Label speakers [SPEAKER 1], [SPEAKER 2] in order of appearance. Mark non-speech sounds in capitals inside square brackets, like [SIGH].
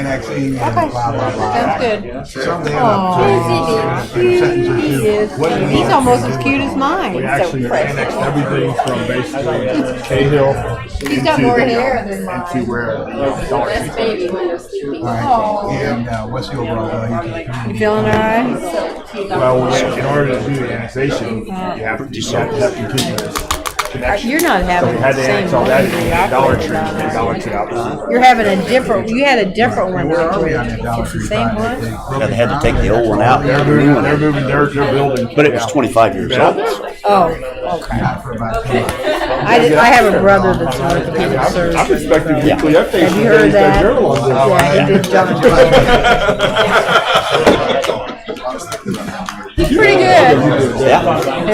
[SPEAKER 1] annexing and blah,
[SPEAKER 2] Okay.
[SPEAKER 1] blah,
[SPEAKER 2] Sounds
[SPEAKER 1] blah.
[SPEAKER 2] good.
[SPEAKER 1] Something
[SPEAKER 2] Aw.
[SPEAKER 1] about three sentences.
[SPEAKER 2] He is
[SPEAKER 1] What do you
[SPEAKER 2] cute. He's
[SPEAKER 1] want?
[SPEAKER 2] almost as cute as mine.
[SPEAKER 3] We
[SPEAKER 2] He's so
[SPEAKER 3] actually
[SPEAKER 2] precious.
[SPEAKER 3] annexed everything from basically Cahill.
[SPEAKER 2] He's got
[SPEAKER 3] into
[SPEAKER 2] more
[SPEAKER 3] the-
[SPEAKER 2] hair than mine.
[SPEAKER 3] Into where the
[SPEAKER 4] That's
[SPEAKER 3] dark.
[SPEAKER 4] baby when they're sleeping.
[SPEAKER 2] Aw.
[SPEAKER 1] Right, and uh, what's the overall value to the
[SPEAKER 2] You
[SPEAKER 1] community?
[SPEAKER 2] feeling all right?
[SPEAKER 4] So cute.
[SPEAKER 3] Well, in order to do the annexation, you have to, you have to have continuous connection.
[SPEAKER 2] You're not
[SPEAKER 3] So we
[SPEAKER 2] having
[SPEAKER 3] had
[SPEAKER 2] the
[SPEAKER 3] to
[SPEAKER 2] same
[SPEAKER 3] annex all
[SPEAKER 2] one.
[SPEAKER 3] that in Dollar
[SPEAKER 2] that
[SPEAKER 3] Tree,
[SPEAKER 2] you're
[SPEAKER 3] and
[SPEAKER 2] talking
[SPEAKER 3] Dollar Tree obviously.
[SPEAKER 2] about. You're having a different, you had a different one.
[SPEAKER 1] Where are we on
[SPEAKER 2] It's
[SPEAKER 1] that Dollar
[SPEAKER 2] the
[SPEAKER 1] Tree
[SPEAKER 2] same
[SPEAKER 1] project?
[SPEAKER 2] one?
[SPEAKER 1] broke
[SPEAKER 5] they had to
[SPEAKER 1] ground
[SPEAKER 5] take the
[SPEAKER 1] and
[SPEAKER 5] old one out.
[SPEAKER 3] They're moving, they're moving, their their building.
[SPEAKER 5] But it was 25 years old.
[SPEAKER 2] Oh, okay.
[SPEAKER 1] Not for about two months.
[SPEAKER 2] I, did- I have a brother that's an orthopedic surgeon.
[SPEAKER 3] I'm expecting
[SPEAKER 5] Yeah.
[SPEAKER 3] weekly updates
[SPEAKER 2] Have
[SPEAKER 3] from
[SPEAKER 2] you heard
[SPEAKER 3] Daily
[SPEAKER 2] that?
[SPEAKER 3] Journal on this.
[SPEAKER 2] Yeah, he did
[SPEAKER 1] [LAUGHS]
[SPEAKER 2] jump.
[SPEAKER 1] uh,
[SPEAKER 2] [LAUGHS]
[SPEAKER 1] Yeah. uh,
[SPEAKER 2] He's pretty good.
[SPEAKER 5] Yeah.